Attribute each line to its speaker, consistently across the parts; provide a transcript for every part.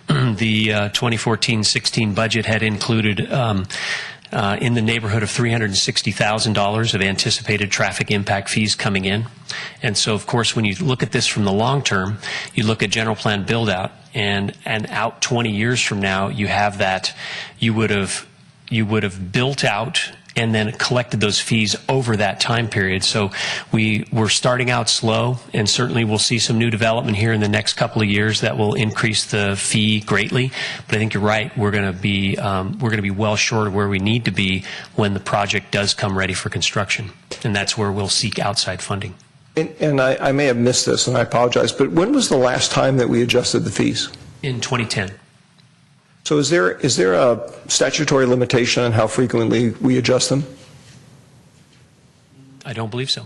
Speaker 1: the uh, 2014-16 budget had included um, uh, in the neighborhood of $360,000 of anticipated traffic impact fees coming in. And so, of course, when you look at this from the long term, you look at general plan build out, and, and out 20 years from now, you have that, you would have, you would have built out and then collected those fees over that time period. So we we're starting out slow, and certainly we'll see some new development here in the next couple of years that will increase the fee greatly. But I think you're right; we're going to be um, we're going to be well short of where we need to be when the project does come ready for construction, and that's where we'll seek outside funding.
Speaker 2: And- And I I may have missed this, and I apologize, but when was the last time that we adjusted the fees?
Speaker 1: In 2010,
Speaker 2: So is there, is there a statutory limitation on how frequently we adjust them?
Speaker 1: I don't believe so.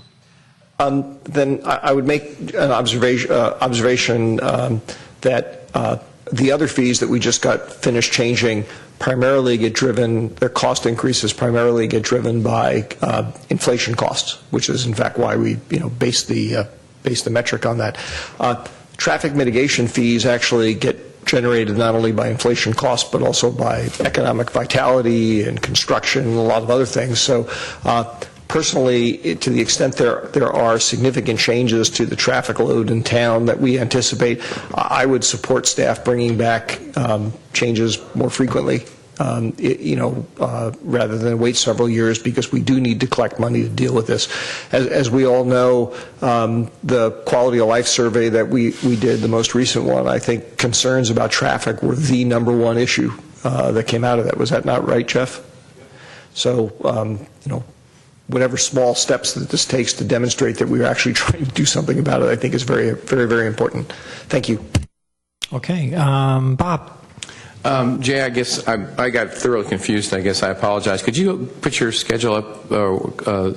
Speaker 2: Um, Then I I would make an observation, uh, observation um, that uh, the other fees that we just got finished changing primarily get driven, their cost increases primarily get driven by uh, inflation costs, which is in fact why we, you know, base the, uh, base the metric on that. Uh, Traffic mitigation fees actually get generated not only by inflation costs, but also by economic vitality and construction and a lot of other things. So uh, personally, it- to the extent there, there are significant changes to the traffic load in town that we anticipate, I I would support staff bringing back um, changes more frequently, um, i- you know, uh, rather than wait several years, because we do need to collect money to deal with this. As, as we all know, um, the quality of life survey that we, we did, the most recent one, I think concerns about traffic were the number one issue uh, that came out of that. Was that not right, Jeff? So, um, you know, whatever small steps that this takes to demonstrate that we're actually trying to do something about it, I think is very, very, very important. Thank you.
Speaker 3: Okay, um, Bob.
Speaker 4: Um, Jay, I guess I I got thoroughly confused, I guess I apologize. Could you put your schedule up, or uh,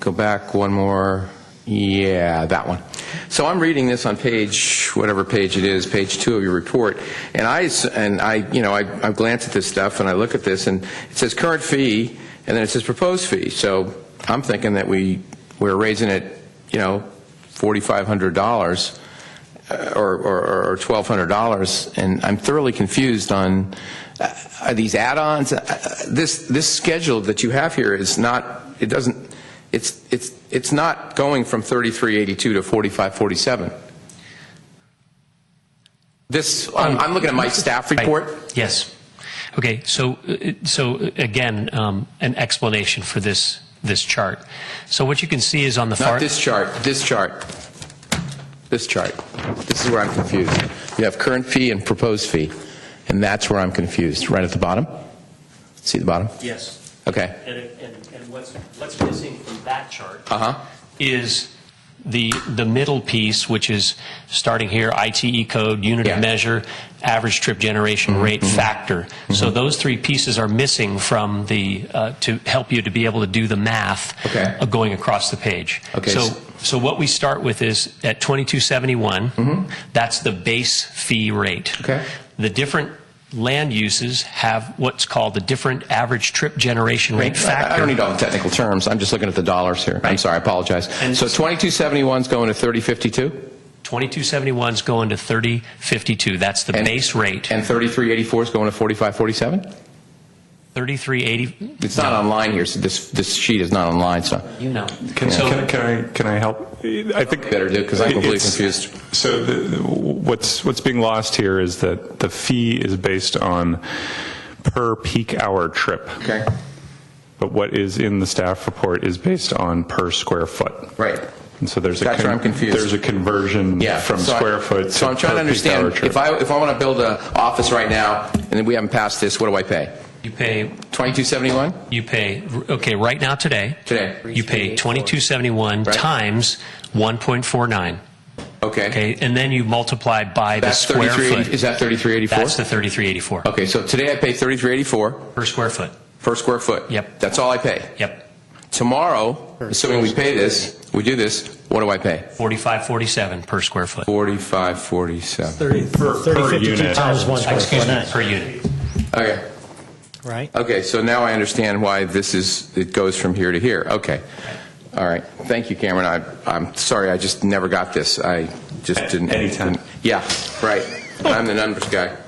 Speaker 4: go back one more? Yeah, that one. So I'm reading this on page, whatever page it is, page two of your report, and I, s- and I, you know, I I glance at this stuff, and I look at this, and it says current fee, and then it says proposed fee. So I'm thinking that we, we're raising it, you know, $4,500 uh, or, or, or $1,200, and I'm thoroughly confused on, uh, are these add-ons? Uh, uh, This, this schedule that you have here is not, it doesn't, it's, it's, it's not going from 3382 to 4547. This, I'm, I'm looking at my staff report.
Speaker 1: Right. Yes. Okay, so, uh, so uh, again, um, an explanation for this, this chart. So what you can see is on the far...
Speaker 4: Not this chart, this chart. This chart. This is where I'm confused. You have current fee and proposed fee, and that's where I'm confused, right at the bottom? See the bottom?
Speaker 1: Yes.
Speaker 4: Okay.
Speaker 1: And, and, and what's, what's missing from that chart
Speaker 4: Uh-huh.
Speaker 1: is the, the middle piece, which is starting here, ITE code, unit of
Speaker 4: Yeah. Mm-hmm.
Speaker 1: measure, average trip generation rate factor. So those three pieces are missing from the, uh, to help you to be able to do the math
Speaker 4: Okay.
Speaker 1: of going across the page.
Speaker 4: Okay.
Speaker 1: So, so what we start with is at 2271, that's the base fee rate.
Speaker 4: Mm-hmm. Okay.
Speaker 1: The different land uses have what's called the different average trip generation rate factor.
Speaker 4: I I don't need all the technical terms. I'm just looking at the dollars here. I'm sorry, I apologize.
Speaker 1: And-
Speaker 4: So 2271 is going to 3052,
Speaker 1: 2271's going to 3052. That's the
Speaker 4: And-
Speaker 1: base rate.
Speaker 4: and 3384 is going to 4547?
Speaker 1: 3380,
Speaker 4: It's not online here, so this, this sheet is not online, so.
Speaker 1: you know.
Speaker 5: Can,
Speaker 1: So-
Speaker 5: can, can I can I help? I think
Speaker 4: Better do, 'cause I'm completely
Speaker 5: It's-
Speaker 4: confused.
Speaker 5: So the, what's what's being lost here is that the fee is based on per peak hour trip.
Speaker 4: Okay.
Speaker 5: But what is in the staff report is based on per square foot.
Speaker 4: Right.
Speaker 5: And so there's a
Speaker 4: That's where I'm confused.
Speaker 5: there's a conversion
Speaker 4: Yeah.
Speaker 5: from
Speaker 4: so I-
Speaker 5: square foot.
Speaker 4: So
Speaker 5: to
Speaker 4: I'm trying to
Speaker 5: per peak hour
Speaker 4: understand,
Speaker 5: trip.
Speaker 4: if I, if I want to build an office right now, and then we haven't passed this, what do I pay?
Speaker 1: You pay,
Speaker 4: 2271?
Speaker 1: you pay, okay, right now today.
Speaker 4: Today.
Speaker 1: You pay 2271
Speaker 4: Right.
Speaker 1: times 1.49.
Speaker 4: Okay.
Speaker 1: Okay, and then you multiply by the
Speaker 4: That's
Speaker 1: square
Speaker 4: 3380
Speaker 1: foot.
Speaker 4: Is Oh. that 3384?
Speaker 1: That's the 3384
Speaker 4: Okay, so today I pay 3384
Speaker 1: per square foot.
Speaker 4: per square foot.
Speaker 1: Yep.
Speaker 4: That's all I pay.
Speaker 1: Yep,
Speaker 4: Tomorrow, assuming we pay this, we do this, what do I pay?
Speaker 1: 4547 per square foot.
Speaker 4: 45, 47.
Speaker 3: 30,
Speaker 5: Per- per
Speaker 3: 52
Speaker 5: unit.
Speaker 3: times one
Speaker 1: Excuse me,
Speaker 3: square foot,
Speaker 1: per unit.
Speaker 4: Okay,
Speaker 3: right?
Speaker 4: okay, so now I understand why this is, it goes from here to here, okay. All right, thank you, Cameron, I, I'm sorry, I just never got this, I just didn't.
Speaker 5: Anytime.
Speaker 4: Yeah, right, I'm the numbers guy.